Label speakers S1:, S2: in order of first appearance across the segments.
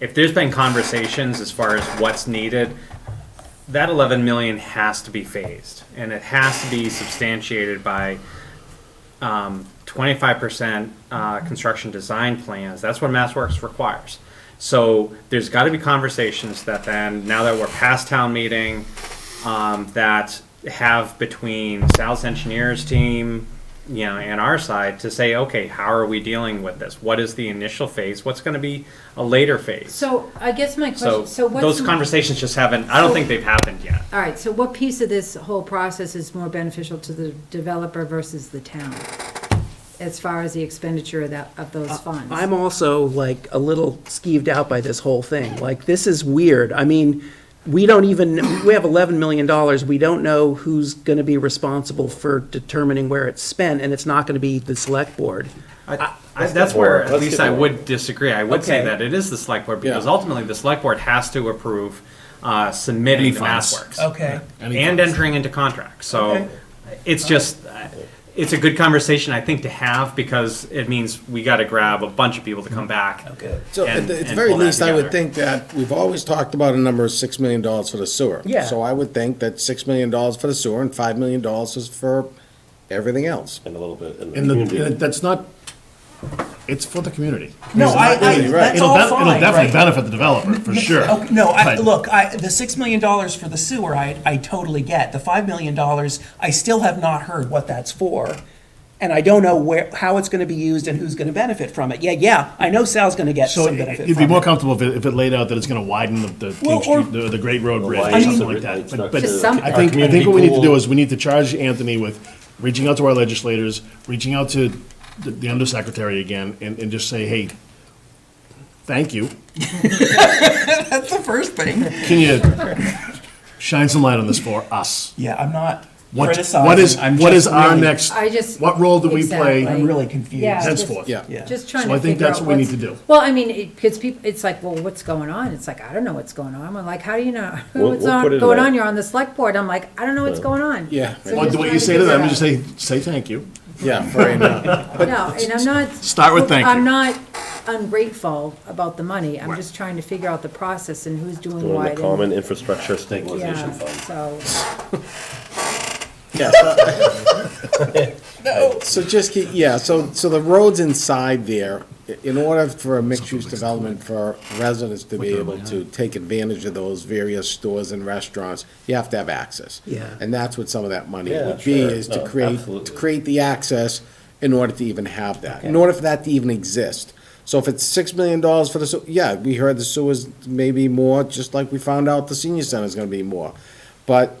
S1: if there's been conversations as far as what's needed, that 11 million has to be phased, and it has to be substantiated by um, 25% uh, construction design plans. That's what MassWorks requires. So there's got to be conversations that then, now that we're past town meeting, um, that have between Sal's engineers team, you know, and our side to say, okay, how are we dealing with this? What is the initial phase? What's going to be a later phase?
S2: So I guess my
S1: So,
S2: question, so what's,
S1: those
S2: all
S1: conversations just haven't, I don't
S2: So-
S1: think they've happened yet.
S2: right, so what piece of this whole process is more beneficial to the developer versus the town? As far as the expenditure of that, of
S3: Uh,
S2: those funds?
S4: I'm also like a little skeeved out by this whole thing. Like, this is weird. I mean, we don't even, we have $11 million. We don't know who's going to be responsible for determining where it's spent, and it's not going to be the select board.
S1: I, I, that's where, at
S5: Let's
S1: least
S5: get
S1: I
S5: more.
S1: would disagree. I would say
S4: Okay.
S1: that it is the select board because
S5: Yeah.
S1: ultimately the select board has to approve uh, submitting the mass works
S4: Okay.
S5: Any
S1: and
S5: funds.
S1: entering into contracts. So
S4: Okay.
S1: it's just, uh, it's a good conversation I think to have because it means we got to grab a bunch of people to come back.
S4: Okay.
S5: So at
S1: and-
S5: the, at the
S1: and
S5: very
S1: pull that
S5: least, I
S1: together.
S5: would think that, we've always talked about a number of six million dollars for the sewer.
S4: Yeah.
S5: So I would think that six million dollars for the sewer and five million dollars is for everything else.
S6: And a little bit in the
S3: And the,
S6: community.
S3: and that's not, it's for the community.
S7: No, I, I,
S5: Really, right.
S7: that's
S5: It'll
S7: all
S3: be-
S7: fine,
S3: It'll definitely
S7: right?
S3: benefit the developer, for sure.
S7: Okay, No, I,
S3: But-
S7: look, I, the six million dollars for the sewer, I, I totally get. The five million dollars, I still have not heard what that's for. And I don't know where, how it's gonna be used and who's gonna benefit from it. Yeah, yeah, I know Sal's gonna get
S3: So
S7: some
S3: it-
S7: benefit
S3: it'd be
S7: from
S3: more
S7: it.
S3: comfortable if it, if it laid out that it's gonna widen the, the
S7: Well,
S3: King
S7: or-
S3: Street, the, the Great Road Bridge
S6: lights
S3: or
S6: up
S3: something
S6: the-
S3: like that.
S6: it's
S3: But,
S6: not
S3: but
S6: gonna-
S2: Just some-
S3: I think, I think
S6: Our
S3: what we need to
S6: community
S3: do
S6: pool.
S3: is we need to charge Anthony with reaching out to our legislators, reaching out to the, the undersecretary again, and, and just say, hey, thank you.
S7: That's the first thing.
S3: Can you shine some light on this for us?
S7: Yeah, I'm not
S3: What, what is,
S7: criticizing, I'm
S3: what
S7: just
S3: is our
S7: really-
S3: next,
S2: I just-
S3: what role do we play?
S2: Exactly.
S7: I'm really confused.
S2: Yeah, just-
S3: henceforth.
S5: Yeah.
S7: Yeah.
S2: Just trying
S3: So
S2: to figure out
S3: I think that's what we need
S2: what's-
S3: to do.
S2: Well, I mean, because people, it's like, well, what's going on? It's like, I don't know what's going on. I'm like, how do you know
S6: We'll-
S2: what's
S6: we'll
S2: on-
S6: put it in
S2: going
S6: our-
S2: on? You're on the select board. I'm like, I don't know what's going on.
S5: Yeah.
S2: So
S3: Well,
S2: just
S3: the way
S2: trying
S3: you
S2: to
S3: say to them,
S2: figure
S3: just
S2: out.
S3: say, say thank you.
S5: Yeah, for right now.
S2: No, and I'm not.
S3: Start with thank
S2: I'm
S3: you.
S2: not ungrateful about the money. I'm just trying to figure out the process and who's doing
S6: Doing
S2: what.
S6: the
S2: and-
S6: common infrastructure stabilization
S2: Yeah,
S6: fund.
S2: so.
S5: Yeah, so- So just keep, yeah, so, so the roads inside there, i- in order for a mixed-use development for residents to be able to take advantage of those various stores and restaurants, you have to have access.
S4: Yeah.
S5: And that's what some of that money
S6: Yeah,
S5: would be,
S6: sure.
S5: is to
S6: No,
S5: create, to
S6: absolutely.
S5: create the access in order to even have that, in order for that to even exist. So if it's six million dollars for the, sew- yeah, we heard the sewers may be more, just like we found out the senior center's gonna be more. But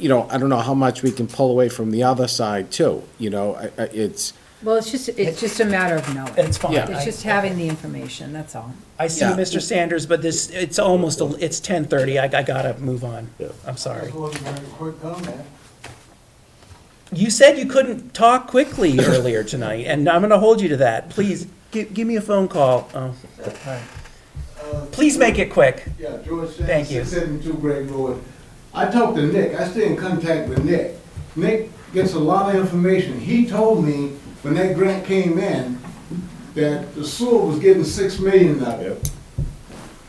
S5: you know, I don't know how much we can pull away from the other side too, you know, I- I- it's,
S2: Well, it's just, it's just a matter of knowing.
S7: It's fine.
S5: Yeah.
S2: It's just having the information, that's all.
S7: I see
S5: Yeah.
S7: Mr. Sanders, but this, it's almost, a- it's ten thirty, I, I gotta move on.
S6: Yeah.
S7: I'm sorry.
S8: Quick comment.
S7: You said you couldn't talk quickly earlier tonight, and I'm gonna hold you to that. Please, give, give me a phone call. Oh, all right. Please make it quick.
S8: Yeah, George
S7: Thank you.
S8: Shannon, six seventy-two Greg Road. I talked to Nick, I stay in contact with Nick. Nick gets a lot of information. He told me when that grant came in, that the sewer was getting six million out of it.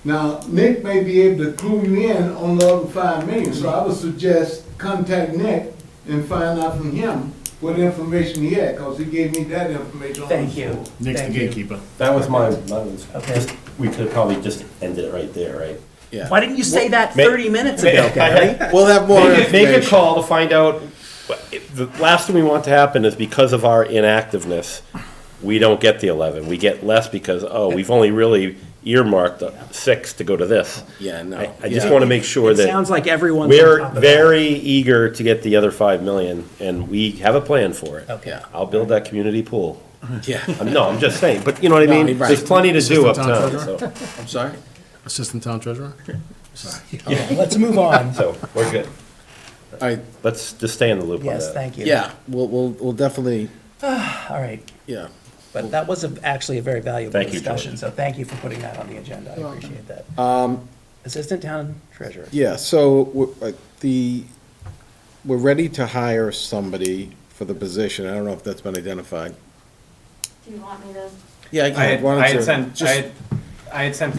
S8: Now, Nick may be able to clue me in on the other five million, so I would suggest contact Nick and find out from him what information he had, cause he gave me that information on the
S7: Thank you.
S8: sewer.
S3: Nick's the
S7: Thank you.
S3: gatekeeper.
S6: That was my, that was,
S7: Okay.
S6: just, we could probably just end it right there, right?
S5: yeah.
S4: Why didn't you say that
S6: Ma-
S4: 30 minutes ago, Gary?
S5: We'll have more
S6: Make a, make a
S5: information.
S6: call to find out, what- if the last thing we want to happen is because of our inactiveness, we don't get the eleven, we get less because, oh, we've only really earmarked the six to go to this.
S5: Yeah, no.
S6: I, I just
S5: Yeah.
S6: wanna make sure
S7: It
S6: that.
S7: sounds like everyone's on
S6: We're
S7: top of that.
S6: very eager to get the other five million, and we have a plan for
S5: Oh.
S6: it.
S7: Okay.
S6: I'll build that community pool.
S5: Yeah,
S6: I'm- No, I'm just saying, but you know what I
S5: No,
S6: mean?
S5: right.
S6: There's plenty to do
S3: Assistant town
S6: uptown, so,
S5: I'm sorry.
S3: Assistant town treasurer?
S7: Let's move on.
S6: so, we're good.
S5: All right,
S6: Let's just stay in the loop on that.
S7: Yes, thank you.
S5: yeah, we'll, we'll, we'll definitely,
S7: All right,
S5: yeah.
S7: but that was a- actually a very valuable
S6: Thank you,
S7: discussion,
S6: George.
S7: so thank you for putting that on the agenda. I appreciate that.
S6: Um,
S7: Assistant Town Treasurer.
S5: Yeah, so we're, uh, the, we're ready to hire somebody for the position. I don't know if that's been identified.
S9: Do you want me to
S5: Yeah, I
S1: I
S5: can,
S1: had,
S5: why
S1: I
S5: don't you?
S1: had sent, I
S5: just-
S1: had, I had sent